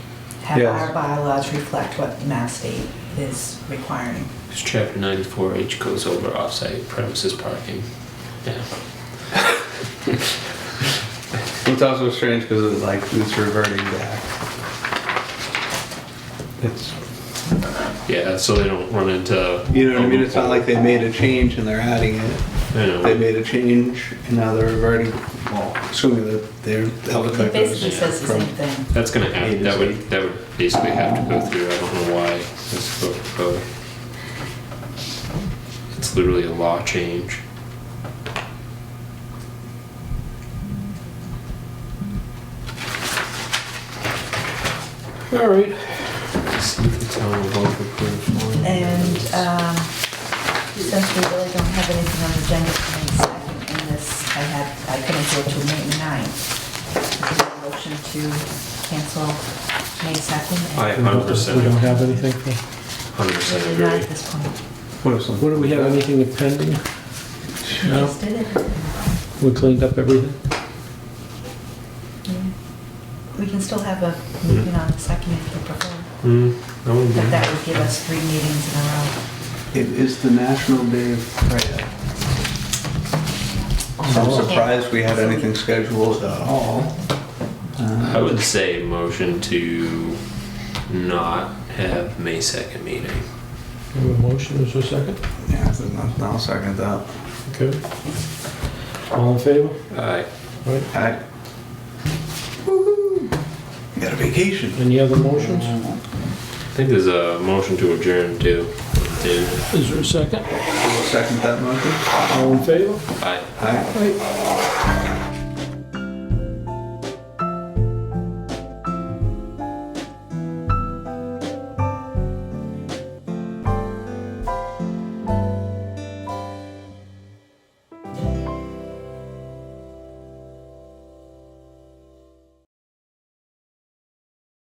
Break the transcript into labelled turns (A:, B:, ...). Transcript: A: have
B: Yes.
A: our bylaws reflect what Mass State is requiring.
C: Because chapter ninety-four H goes over offsite premises parking. Yeah.
B: It's also strange because it's like it's reverting back. It's
C: Yeah, so they don't run into.
B: you know what I mean. It's not like they made a change and they're adding it.
C: I know.
B: They made a change and now they're reverting. Well, assuming that they're that would
A: It basically
B: goes
A: says the
B: from
A: same thing.
C: That's gonna have, that would, that would basically have to go through, I don't know why this vote, vote. It's literally a law change.
B: all right.
C: See if the town will vote for approval.
A: And um, since we really don't have anything on the agenda for May second, and this, I had, I couldn't go to May ninth. Is there a motion to cancel May
C: I
A: second?
C: hundred
D: We don't
C: percent,
D: have anything for,
C: hundred percent
A: Really not at
C: agree.
A: this point.
B: What if something?
D: what do we have, anything pending?
A: We
D: No.
A: just did it.
D: We cleaned up everything?
A: Yeah. We can still have a meeting on the second if you prefer,
C: Hmm, I wouldn't
A: but
C: be-
A: that would give us three meetings in a row.
B: It is the National Day of Prayer. So
D: Oh.
B: I'm surprised we had anything scheduled at all. Uh,
C: I would say motion to not have May second meeting.
D: We have a motion, is there a second?
B: Yeah, I think I'll- I'll second that.
D: Okay. All in favor?
C: Aye.
D: Right,
B: I. Got a vacation.
D: any other motions?
C: I think there's a motion to adjourn too. Dude,
D: Is there a second?
B: tá? Second that motion?
D: All in favor?
C: aye.
B: Aye.
D: Right.